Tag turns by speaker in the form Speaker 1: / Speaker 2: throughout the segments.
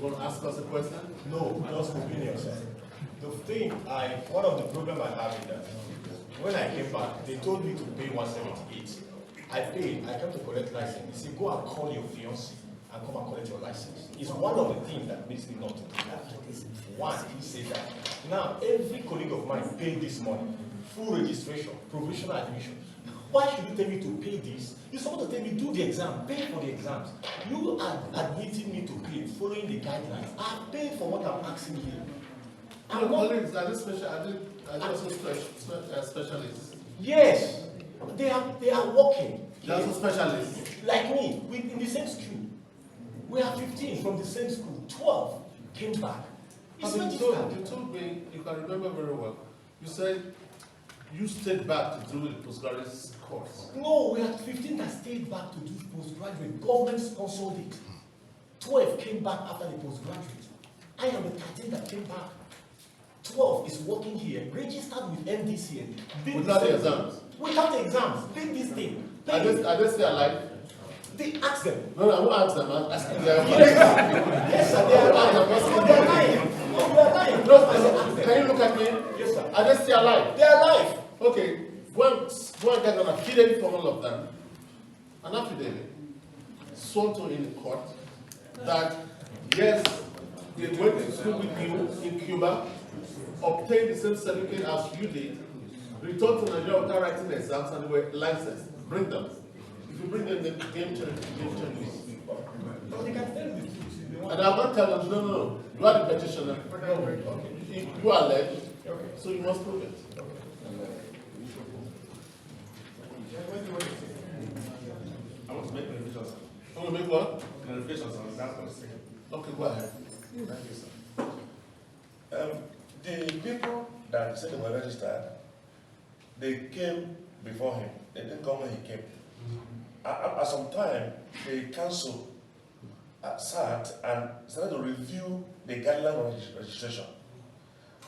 Speaker 1: Want to ask us a question?
Speaker 2: No, just convenience. The thing I, one of the problem I have is that when I came back, they told me to pay one seventy-eight. I paid, I came to collect license. They say, go and call your fiancé and come and collect your license. It's one of the things that makes me not to do that. One, he said that. Now, every colleague of mine paid this money, full registration, provisional admission. Why should you tell me to pay this? You're supposed to tell me, do the exam, pay for the exams. You are admitting me to pay, following the guidelines. I pay for what I'm asking you.
Speaker 1: Your
Speaker 2: I'm not
Speaker 1: colleagues, are they special, are they, are they also spe- spe- uh, specialists?
Speaker 2: Yes, they are they are working
Speaker 1: They're also specialists.
Speaker 2: like me. We in the same school. We are fifteen from the same school. Twelve came back. It's
Speaker 1: And
Speaker 2: not
Speaker 1: you
Speaker 2: difficult.
Speaker 1: told, you told me, if I remember very well, you said you stayed back to do the postgraduate course.
Speaker 2: No, we had fifteen that stayed back to do postgraduate. Government sponsored it. Twelve came back after the postgraduate. I am the thirteen that came back. Twelve is working here, registered with MDCN. did
Speaker 1: Without the
Speaker 2: same-
Speaker 1: exams?
Speaker 2: Without the exams, did this thing.
Speaker 1: Are they,
Speaker 2: paid.
Speaker 1: are they still alive?
Speaker 2: They asked them,
Speaker 1: No, no, I won't ask them, I'm asking them.
Speaker 2: Yes, sir, they are lying. No, they are lying. No, they are lying.
Speaker 1: No,
Speaker 2: I said, ask
Speaker 1: no,
Speaker 2: them.
Speaker 1: can you look at me?
Speaker 2: Yes, sir.
Speaker 1: Are they still alive?
Speaker 2: They are lying.
Speaker 1: Okay, one, one guy gonna kill him from all of them. An affidavit sworn to in court that, yes, they went to school with you in Cuba, obtained the same certificate as you did, returned to Nigeria without writing the exams and were licensed. Bring them. If you bring them, the game change, game changes.
Speaker 2: But they can tell you the truth. They want-
Speaker 1: And I'm not telling, no, no, no, you are the petitioner. No, okay. You- You are alleged, so you must prove it.
Speaker 3: I want to make clarifications.
Speaker 1: You want to make one?
Speaker 3: Clarifications on that one second.
Speaker 1: Okay, go ahead.
Speaker 3: Thank you, sir. Um, the people that said they were registered, they came before him. They didn't come when he came. At, at, at some time, the council uh, sat and started to review the guideline on reg- registration.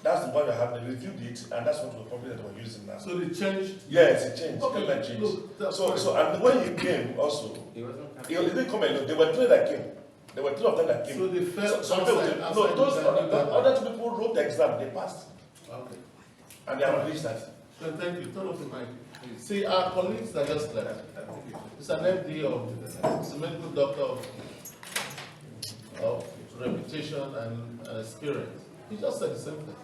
Speaker 3: That's the one that happened. They reviewed it, and that's what the problem that we're using now.
Speaker 1: So they changed.
Speaker 3: Yes, it changed.
Speaker 1: Okay,
Speaker 3: Guideline changed.
Speaker 1: look, that's
Speaker 3: So,
Speaker 1: fine.
Speaker 3: so, and when he came also,
Speaker 4: He wasn't
Speaker 3: He
Speaker 4: coming.
Speaker 3: only didn't come alone. There were three that came. There were three of them that came.
Speaker 1: So they fell
Speaker 3: So- so they
Speaker 1: outside-
Speaker 3: were-
Speaker 1: outside
Speaker 3: no, those
Speaker 1: the
Speaker 3: other,
Speaker 1: guideline.
Speaker 3: other two people wrote the exam. They passed,
Speaker 1: Okay.
Speaker 3: and they have reached that.
Speaker 1: Then Uh, thank you. Turn off the mic. please. See, our colleagues that just left. It's an MD of, it's a medical doctor of, of reputation and and experience. He just said the same thing.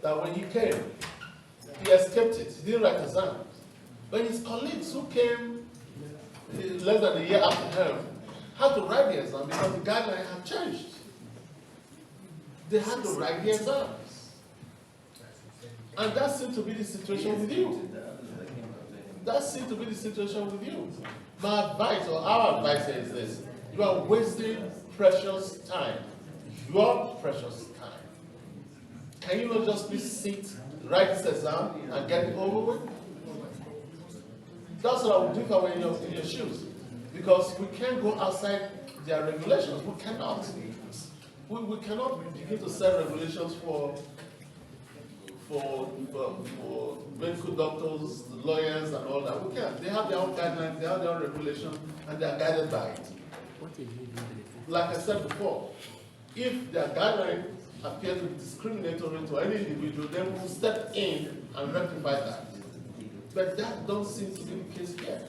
Speaker 1: That when he came, he escaped it. He didn't write exams. But his colleagues who came eh, less than a year after him had to write the exam because the guideline had changed. They had to write the exams. And that seemed to be the situation with you. That seemed to be the situation with you. My advice or our advice is this, you are wasting precious time, your precious time. Can you not just please sit, write this exam and get it over with? That's what I would do if I were in your, in your shoes. Because we can't go outside their regulations, we cannot. We, we cannot begin to set regulations for for, for, for medical doctors, lawyers and all that, we can, they have their own guidelines, they have their own regulation, and they are guided by it. Like I said before, if their guidelines appear to be discriminatory to any individual, then we'll step in and rectify that. But that don't seem to be the case here.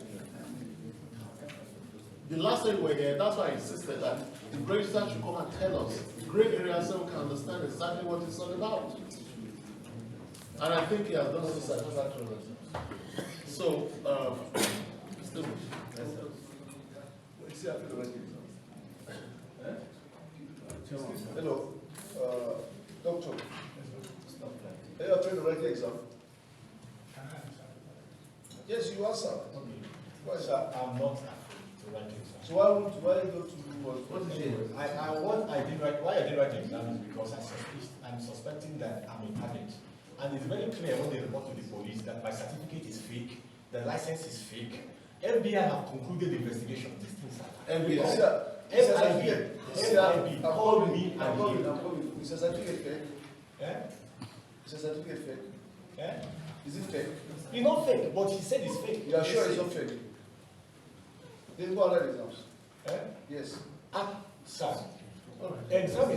Speaker 1: The last time we were here, that's why I insisted that the registrar should come and tell us, gray areas so we can understand exactly what it's all about. And I think he has done so satisfactorily. So, um, Mr.
Speaker 5: Hello, uh, doctor. Are you trying to write the exam? Yes, you answer. Why is that?
Speaker 2: I'm not afraid to write exams.
Speaker 5: So why would, why go to, what,
Speaker 1: What
Speaker 5: what
Speaker 1: is
Speaker 5: is
Speaker 1: it?
Speaker 5: it?
Speaker 2: I, I, what I did write, why I did write the exam is because I suspect, I'm suspecting that I'm a target. And it's very clear when they report to the police that my certificate is fake, the license is fake. FBI have concluded the investigation, these things are.
Speaker 1: MBS.
Speaker 5: Yes, sir. Yes, sir, I'm here. Yes, sir, I'm-
Speaker 2: FIB
Speaker 5: I'm
Speaker 2: called
Speaker 5: coming,
Speaker 2: me
Speaker 5: I'm
Speaker 2: and
Speaker 5: coming,
Speaker 2: he,
Speaker 5: I'm coming. Is your certificate fake?
Speaker 2: eh,
Speaker 5: Is your certificate fake?
Speaker 2: eh?
Speaker 5: Is it fake?
Speaker 2: It's not fake, but he said it's fake. Eh?
Speaker 5: You are sure
Speaker 2: He
Speaker 5: it's
Speaker 2: said,
Speaker 5: not fake? Then go and write exams.
Speaker 2: Eh?
Speaker 5: Yes.
Speaker 2: Ah, sir,
Speaker 1: All right.
Speaker 2: And some